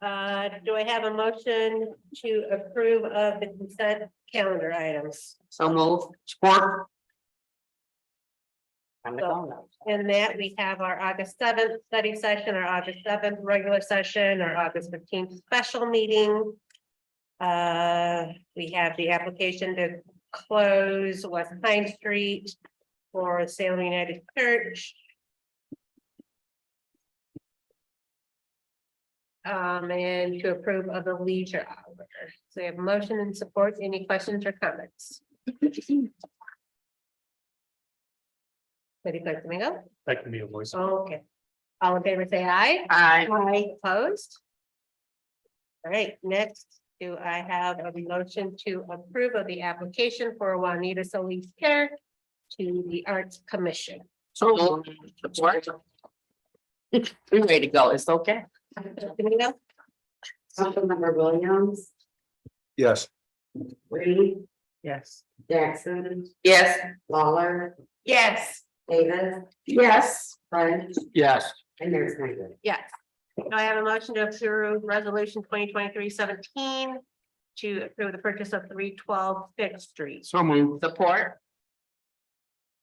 Uh, do I have a motion to approve of the consent calendar items? So move, support. I'm the go now. In that we have our August seventh study session, our August seventh regular session, our August fifteenth special meeting. Uh, we have the application to close West Pine Street for Salem United Church. Um, and to approve of the leisure hour. So we have motion and support. Any questions or comments? City Clerk Domingo? That can be a voice. Okay. All in favor, say aye. Aye. Aye. Opposed? All right, next, do I have a motion to approve of the application for Juanita Solis Care to the Arts Commission? So move, support. Three way to go, it's okay. Domingo? Councilmember Williams, Yes. Reed, Yes. Jackson, Yes. Lawler, Yes. Davis, Yes. French, Yes. and Mayor Snyder. Yes. Do I have a motion to approve resolution 2023-17 to approve the purchase of three twelve Fifth Street? So move. Support.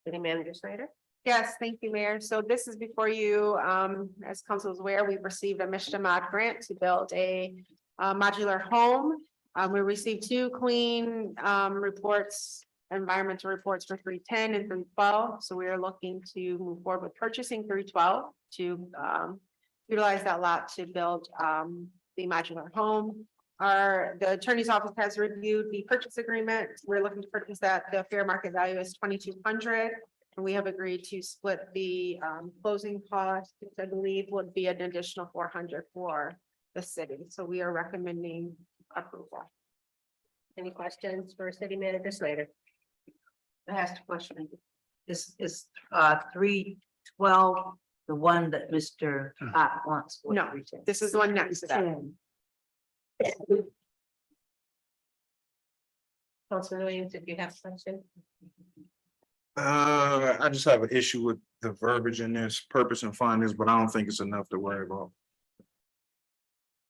City Manager Snyder? Yes, thank you, Mayor. So this is before you, um, as council is aware, we've received a Mishta Mod grant to build a uh, modular home. Um, we received two clean, um, reports, environmental reports for three ten and three twelve. So we are looking to move forward with purchasing three twelve to, um, utilize that lot to build, um, the modular home. Our, the attorney's office has reviewed the purchase agreement. We're looking to purchase that. The fair market value is twenty-two hundred. And we have agreed to split the um closing cost, which I believe would be an additional four hundred for the city. So we are recommending approval. Any questions for City Manager Snyder? I asked a question. This is uh three twelve, the one that Mr. Hot wants. No, This is the one next to that. Councilman Williams, if you have a question? Uh, I just have an issue with the verbiage in this purpose and findings, but I don't think it's enough to worry about.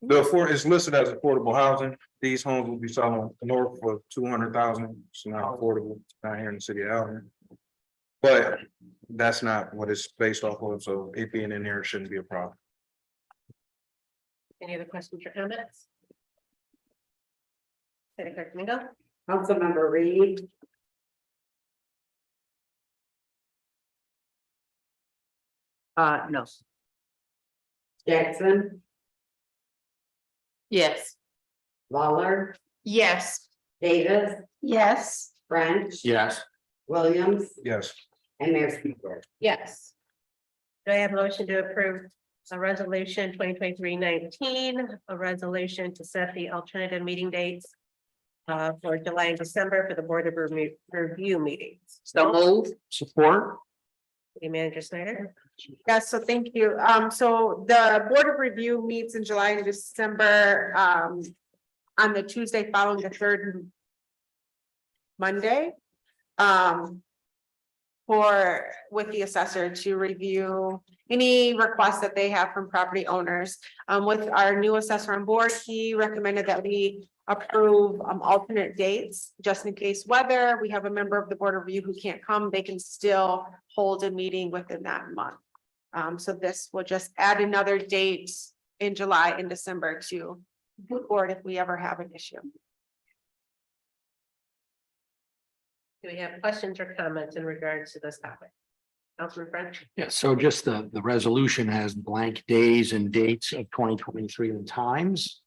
The afford, it's listed as affordable housing. These homes will be selling north of two hundred thousand. It's not affordable, not here in the city of Allen. But that's not what it's based off of, so it being in there shouldn't be a problem. Any other questions or comments? City Clerk Domingo? Councilmember Reed, Uh, no, Jackson, Yes. Lawler, Yes. Davis, Yes. French, Yes. Williams, Yes, and Mayor Snyder. Yes. Do I have a motion to approve a resolution 2023-19, a resolution to set the alternative meeting dates uh, for July and December for the Board of Remu- Review meetings? So move. Support. City Manager Snyder? Yes, so thank you. Um, so the Board of Review meets in July and December, um, on the Tuesday following the third Monday, um, for, with the assessor to review any requests that they have from property owners. Um, with our new assessor on board, he recommended that we approve, um, alternate dates, just in case whether we have a member of the Board of Review who can't come, they can still hold a meeting within that month. Um, so this will just add another date in July and December to the board if we ever have an issue. Do we have questions or comments in regards to this topic? Councilman French? Yeah, so just the, the resolution has blank days and dates of twenty twenty-three and times.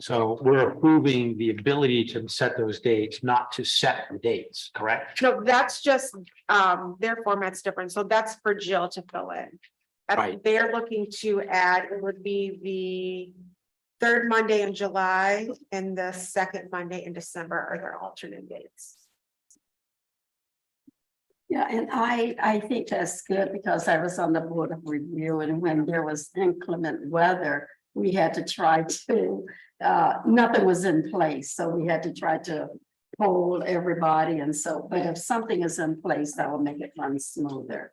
So we're approving the ability to set those dates, not to set the dates, correct? No, that's just, um, their format's different, so that's for Jill to fill in. Uh, Right. They're looking to add, it would be the third Monday in July and the second Monday in December are their alternate dates. Yeah, and I, I think that's good because I was on the board of review and when there was inclement weather, we had to try to, uh, nothing was in place, so we had to try to poll everybody and so, but if something is in place, that will make it run smoother.